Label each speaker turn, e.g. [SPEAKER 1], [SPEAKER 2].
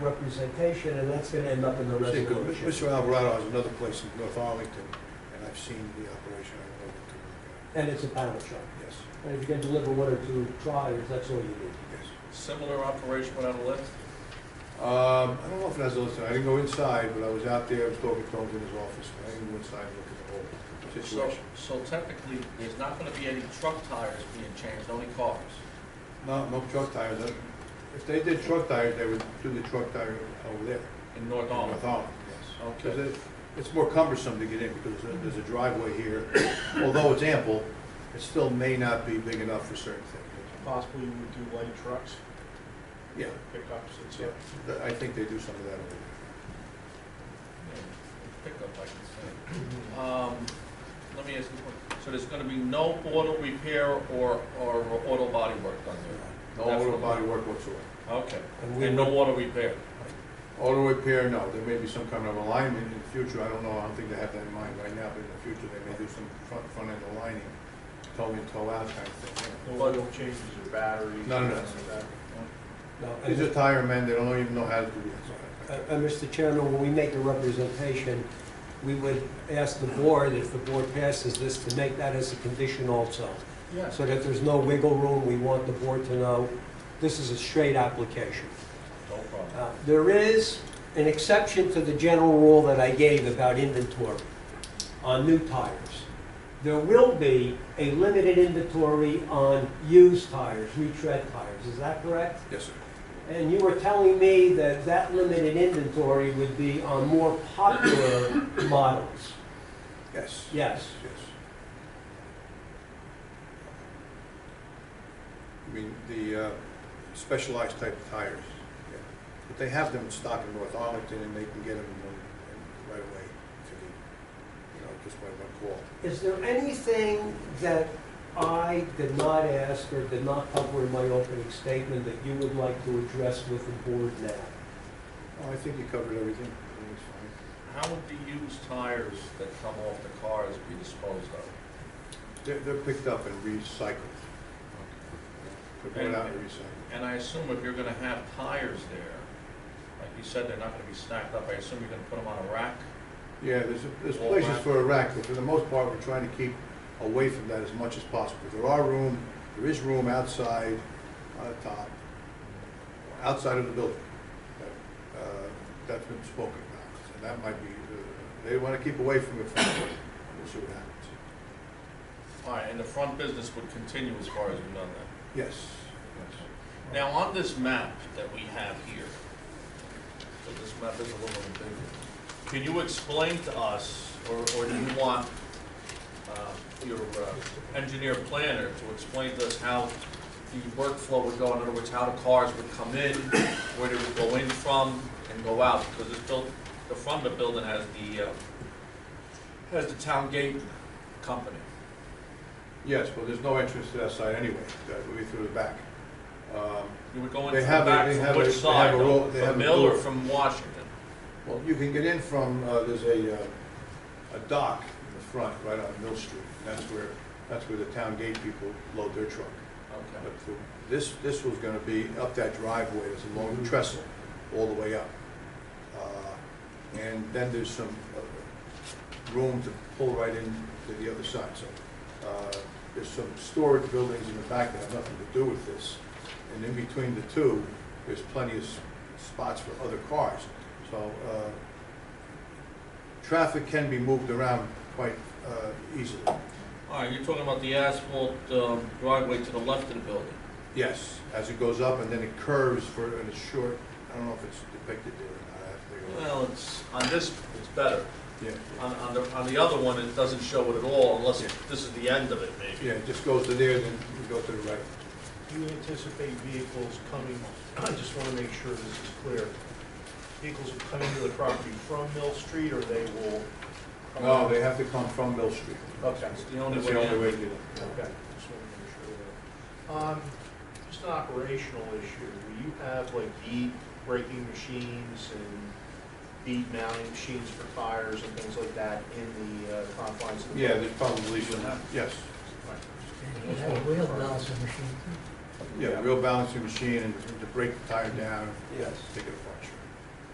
[SPEAKER 1] representation, and that's gonna end up in the
[SPEAKER 2] See, 'cause
[SPEAKER 1] resolution.
[SPEAKER 2] Mr. Alvarado has another place in North Arlington, and I've seen the operation, I know what to look
[SPEAKER 1] And it's a panel shop.
[SPEAKER 2] at. Yes,
[SPEAKER 1] And if you can deliver one or two trials, that's all you need.
[SPEAKER 2] yes.
[SPEAKER 3] Similar operation without a lift?
[SPEAKER 2] Um, I don't know if it has a list, I didn't go inside, but I was out there, I was talking to him in his office, I didn't go inside and look at the whole
[SPEAKER 3] So,
[SPEAKER 2] situation.
[SPEAKER 3] so technically, there's not gonna be any truck tires being changed, only cars.
[SPEAKER 2] No, no truck tires, that- if they did truck tires, they would do the truck tire over there.
[SPEAKER 3] In North
[SPEAKER 2] in
[SPEAKER 3] Arlington?
[SPEAKER 2] North Arlington, yes.
[SPEAKER 3] Okay.
[SPEAKER 2] Because it- it's more cumbersome to get in, because there's a- there's a driveway here, although it's ample, it still may not be big enough for certain things.
[SPEAKER 4] Possibly you would do light trucks,
[SPEAKER 2] Yeah,
[SPEAKER 4] pickups, and
[SPEAKER 2] yeah,
[SPEAKER 4] stuff.
[SPEAKER 2] Th- I think they do some of that over there.
[SPEAKER 3] Pickup, I can say. Um, let me ask you, a question. so there's gonna be no auto repair or, or auto body work done
[SPEAKER 2] No
[SPEAKER 3] That's
[SPEAKER 2] auto
[SPEAKER 3] what-
[SPEAKER 2] body work whatsoever.
[SPEAKER 3] there? Okay,
[SPEAKER 1] And we
[SPEAKER 3] and no auto repair?
[SPEAKER 2] Auto repair, no, there may be some kind of alignment in the future, I don't know, I don't think they have that in mind right now, but in the future, they may do some front, front end aligning, toe in, toe out kind of thing.
[SPEAKER 4] No oil changes or batteries.
[SPEAKER 2] None of that.
[SPEAKER 4] nothing like
[SPEAKER 1] No,
[SPEAKER 2] yeah.
[SPEAKER 1] and-
[SPEAKER 2] These are tire men, they don't even know how to do it.
[SPEAKER 1] Uh, uh, Mr. Chairman, when we make a representation, we would ask the board, if the board passes this, to make that as a condition also,
[SPEAKER 3] Yes.
[SPEAKER 1] so that there's no wiggle room. We want the board to know this is a straight application.
[SPEAKER 3] No problem.
[SPEAKER 1] Uh, There is an exception to the general rule that I gave about inventory on new tires. There will be a limited inventory on used tires, retread tires. Is that correct?
[SPEAKER 2] Yes, sir.
[SPEAKER 1] And you were telling me that that limited inventory would be on more popular models.
[SPEAKER 2] Yes.
[SPEAKER 1] Yes.
[SPEAKER 2] Yes. I mean, the uh, specialized type of tires, yeah. but they have them in stock in North Arlington, and they can get them in- in right away if you need, you know, just by one call.
[SPEAKER 1] Is there anything that I did not ask or did not cover in my opening statement that you would like to address with the board now?
[SPEAKER 2] Oh, I think you covered everything, I think it's fine.
[SPEAKER 3] How would the used tires that come off the cars be disposed of?
[SPEAKER 2] They're, they're picked up and recycled, they're brought out and recycled.
[SPEAKER 3] And I assume if you're gonna have tires there, like you said, they're not gonna be stacked up, I assume you're gonna put them on a rack?
[SPEAKER 2] Yeah, there's, there's
[SPEAKER 3] Wall
[SPEAKER 2] places
[SPEAKER 3] rack.
[SPEAKER 2] for a rack, but for the most part, we're trying to keep away from that as much as possible. There are room, there is room outside on the top, outside of the building. that, uh, That's been spoken about, and that might be, uh, they want to keep away from it, for now. we'll see what happens.
[SPEAKER 3] All right, and the front business would continue as far as you know that.
[SPEAKER 2] Yes,
[SPEAKER 3] Now, on this map that we have here, so this map is a little bit bigger, can you explain to us, or, or do you want, uh, your uh, engineer planner to explain to us how the workflow would go, in other words, how the cars would come in, where they would go in from and go out, because this built, the front of the building has the, uh, has the town gate company.
[SPEAKER 2] yes, well, there's no entrance to that side anyway, that would be through the back. Um,
[SPEAKER 3] You would go in
[SPEAKER 2] They
[SPEAKER 3] from
[SPEAKER 2] have
[SPEAKER 3] the
[SPEAKER 2] a-
[SPEAKER 3] back
[SPEAKER 2] they
[SPEAKER 3] from
[SPEAKER 2] have a-
[SPEAKER 3] which
[SPEAKER 2] they
[SPEAKER 3] side,
[SPEAKER 2] have a
[SPEAKER 3] though?
[SPEAKER 2] row- they have
[SPEAKER 3] from
[SPEAKER 2] a
[SPEAKER 3] Mill or
[SPEAKER 2] door.
[SPEAKER 3] from Washington?
[SPEAKER 2] Well, you can get in from, uh, there's a, uh, a dock in the front, right on Mill Street. And That's where, that's where the town gate people load their truck.
[SPEAKER 3] Okay.
[SPEAKER 2] But for- this, this was gonna be up that driveway, there's a long trestle all the way up. Uh, And then there's some uh, room to pull right in to the other side, so. uh, There's some storage buildings in the back that have nothing to do with this. And in between the two, there's plenty of s- spots for other cars. So, uh, traffic can be moved around quite uh, easily.
[SPEAKER 3] All right, you're talking about the asphalt um, driveway to the left of the building.
[SPEAKER 2] Yes, as it goes up and then it curves for, and it's short, I don't know if it's depicted there or not, I have to go.
[SPEAKER 3] Well, it's, on this, it's better.
[SPEAKER 2] Yeah,
[SPEAKER 3] On, on the, on the other one, it doesn't show it at all unless
[SPEAKER 2] Yeah.
[SPEAKER 3] this is the end of it, maybe.
[SPEAKER 2] yeah, it just goes to there, then you go to the right.
[SPEAKER 4] Do you anticipate vehicles coming, I just want to make sure this is clear. Vehicles will come into the property from Mill Street, or they will? come
[SPEAKER 2] No,
[SPEAKER 4] out?
[SPEAKER 2] they have to come from Mill Street.
[SPEAKER 4] Okay.
[SPEAKER 3] It's Oh. the only
[SPEAKER 2] That's
[SPEAKER 3] way.
[SPEAKER 2] the only
[SPEAKER 3] in.
[SPEAKER 2] way to do
[SPEAKER 4] Okay, just want to make sure of that. Um, Just an operational issue, will you have like bead breaking machines and bead mounting machines for tires and things like that in the uh, confines of
[SPEAKER 2] it.
[SPEAKER 4] the?
[SPEAKER 2] Yeah, there's probably some, yes,
[SPEAKER 5] You have wheel balance machine.
[SPEAKER 2] yeah, real balancing machine and to break the tire down,
[SPEAKER 1] Yes.
[SPEAKER 2] take it apart. sure.